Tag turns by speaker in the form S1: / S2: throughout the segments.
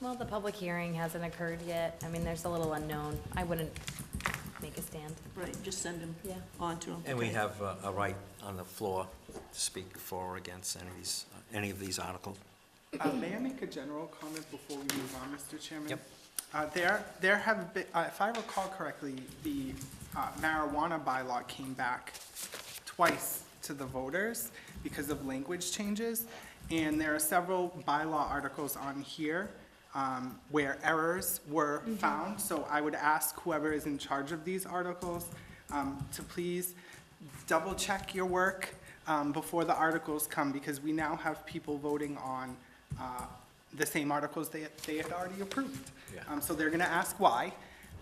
S1: Well, the public hearing hasn't occurred yet. I mean, there's a little unknown. I wouldn't make a stand.
S2: Right, just send them
S1: Yeah.
S2: on to them.
S3: And we have uh, a right on the floor to speak for or against any of these, any of these articles.
S4: Uh, May I make a general comment before we move on, Mr. Chairman?
S3: Yep.
S4: Uh, There, there have been, uh, if I recall correctly, the uh, marijuana bylaw came back twice to the voters because of language changes, and there are several bylaw articles on here um, where errors were found, so I would ask whoever is in charge of these articles um, to please double-check your work um, before the articles come, because we now have people voting on uh, the same articles they, they had already approved.
S3: Yeah.
S4: Um, So they're going to ask why,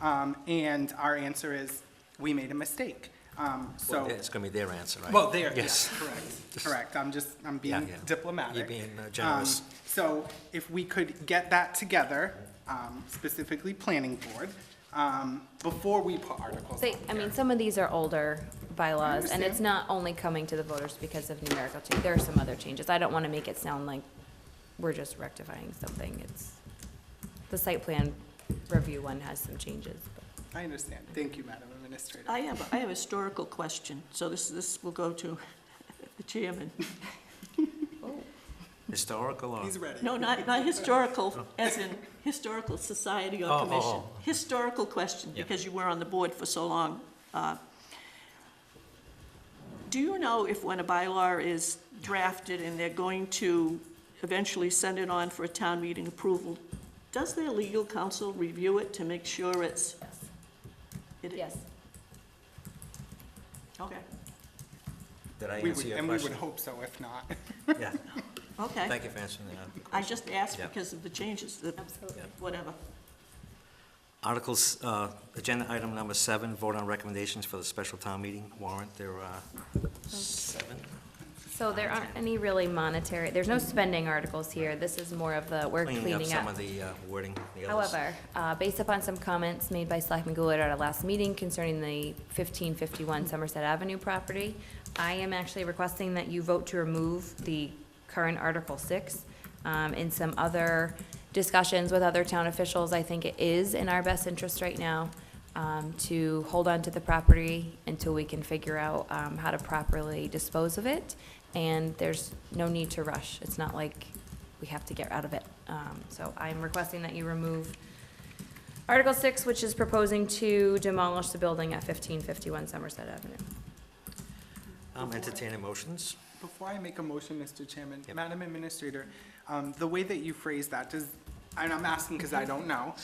S4: um, and our answer is, we made a mistake. Um,
S3: Well,
S4: So,
S3: It's going to be their answer, right?
S4: well, there, yes,
S3: Yes.
S4: correct, correct. I'm just, I'm being
S3: Yeah, yeah.
S4: diplomatic.
S3: You're being, uh, generous.
S4: Um, So if we could get that together, um, specifically planning board, um, before we put articles
S1: Say,
S4: on
S1: I
S4: there.
S1: mean, some of these are older bylaws, and it's
S4: understand.
S1: not only coming to the voters because of numerical change. There are some other changes. I don't want to make it sound like we're just rectifying something. It's, the site plan review one has some changes, but.
S4: I understand. Thank you, Madam Administrator.
S2: I have, I have a historical question, so this, this will go to the chairman.
S3: Historical or?
S4: He's ready.
S2: No, not, not historical, as in historical society
S3: Oh,
S2: or
S3: oh,
S2: commission.
S3: oh.
S2: Historical question,
S3: Yeah.
S2: because you were on the board for so long. Uh, Do you know if when a bylaw is drafted and they're going to eventually send it on for a town meeting approval, does their legal counsel review it to make sure it's? it-
S1: Yes,
S2: Okay,
S3: Did I
S4: We
S3: answer
S4: would-
S3: your
S4: And we would
S3: question?
S4: hope so, if not.
S3: Yeah,
S2: okay.
S3: thank you for answering that.
S2: I just asked
S3: Yeah.
S2: because of the changes, the,
S1: absolutely.
S2: whatever.
S3: Articles, uh, agenda item number seven, vote on recommendations for the special town meeting warrant. uh, There are seven.
S1: So there aren't any really monetary, there's no spending articles here. This is more of the, we're
S3: Cleaning up
S1: cleaning
S3: some
S1: up.
S3: of the uh, wording. the others.
S1: However, uh, based upon some comments made by Selectman Goulart at our last meeting concerning the 1551 Somerset Avenue property, I am actually requesting that you vote to remove the current Article 6. Um, In some other discussions with other town officials, I think it is in our best interest right now um, to hold on to the property until we can figure out um, how to properly dispose of it. And there's no need to rush. It's not like we have to get out of it. Um, So I'm requesting that you remove Article 6, which is proposing to demolish the building at 1551 Somerset Avenue.
S3: Um, Entertaining motions.
S4: Before I make a motion, Mr. Chairman,
S3: Yep.
S4: Madam Administrator, um, the way that you phrased that, does, and I'm asking because I don't know,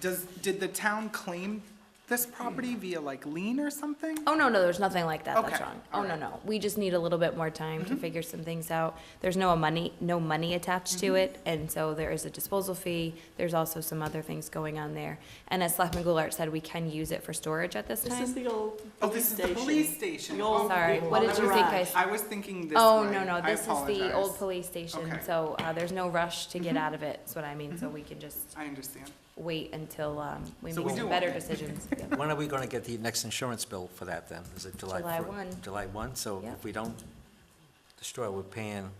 S4: does, did the town claim this property
S2: Hmm.
S4: via like lien or something?
S1: Oh, no, no, there's nothing like that, that's
S4: Okay,
S1: wrong.
S4: all
S1: Oh, no,
S4: right. Mm-hmm.
S1: no, we just need a little bit more time to figure some things out. There's no money, no money attached
S4: Mm-hmm.
S1: to it, and so there is a disposal fee. There's also some other things going on there. And as Selectman Goulart said, we can use it for storage at this
S2: This is
S1: time.
S2: the old
S4: Oh,
S2: police
S4: this is
S2: station.
S4: the police station.
S2: The old-
S4: Oh,
S1: Sorry,
S2: the
S1: what did
S2: old
S1: you think I
S2: garage.
S1: said?
S4: I was thinking this
S1: Oh,
S4: way.
S1: no, no,
S4: I
S1: this is the old
S4: apologize.
S1: police station,
S4: Okay. Mm-hmm.
S1: so uh, there's no rush to get out of it, is what I mean, so we can just
S4: I understand.
S1: wait until um, we
S4: So
S1: make
S4: we
S1: some
S4: do
S1: better
S4: own it.
S1: decisions. Yeah.
S3: When are we going to get the next insurance bill for that then? Is it July?
S1: July
S3: fir-
S1: 1.
S3: July 1, so
S1: Yeah.
S3: if we don't destroy, we're paying,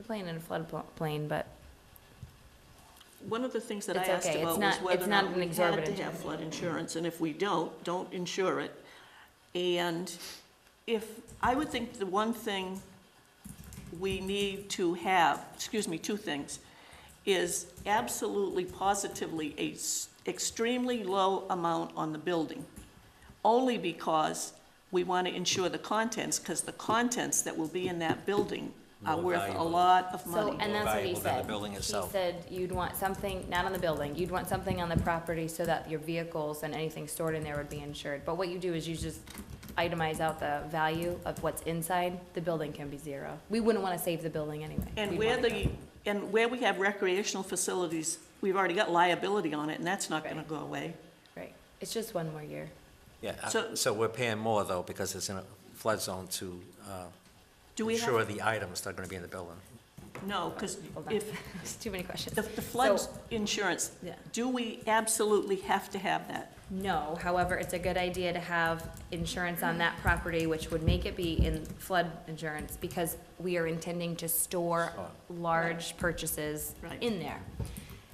S1: We're playing in a floodplain, but
S2: One of the things that I
S1: It's
S2: asked
S1: okay. It's
S2: about was
S1: not-
S2: whether
S1: it's
S2: or
S1: not
S2: not
S1: an
S2: we had to
S1: exorbitant
S2: have
S1: amount.
S2: flood insurance, and if we don't, don't insure it. And if, I would think the one thing we need to have, excuse me, two things, is absolutely positively a s- extremely low amount on the building, only because we want to insure the contents, because the contents that will be in that building are
S3: More
S2: worth a
S3: valuable.
S2: lot of money.
S1: So, and that's what he
S3: valuable than the
S1: said.
S3: building itself.
S1: He said you'd want something, not on the building, you'd want something on the property so that your vehicles and anything stored in there would be insured. But what you do is you just itemize out the value of what's inside, the building can be zero. We wouldn't want to save the building anyway.
S2: And
S1: We'd
S2: where
S1: wanna
S2: the, and where we have recreational facilities, we've already got liability on it, and that's not gonna
S1: Right.
S2: go away.
S1: go. Right, it's just one more year.
S3: yeah, uh,
S2: So-
S3: so we're paying more though because it's in a flood zone to uh,
S2: Do we
S3: insure
S2: have?
S3: the items that are going to be in the building.
S2: No, because
S1: Hold on,
S2: if,
S1: it's too many questions.
S2: the the flood
S1: So-
S2: insurance,
S1: Yeah.
S2: do we absolutely have to have that?
S1: No, however, it's a good idea to have insurance on that property, which would make it be in flood insurance, because we are intending to store large purchases
S2: Right.
S1: in there.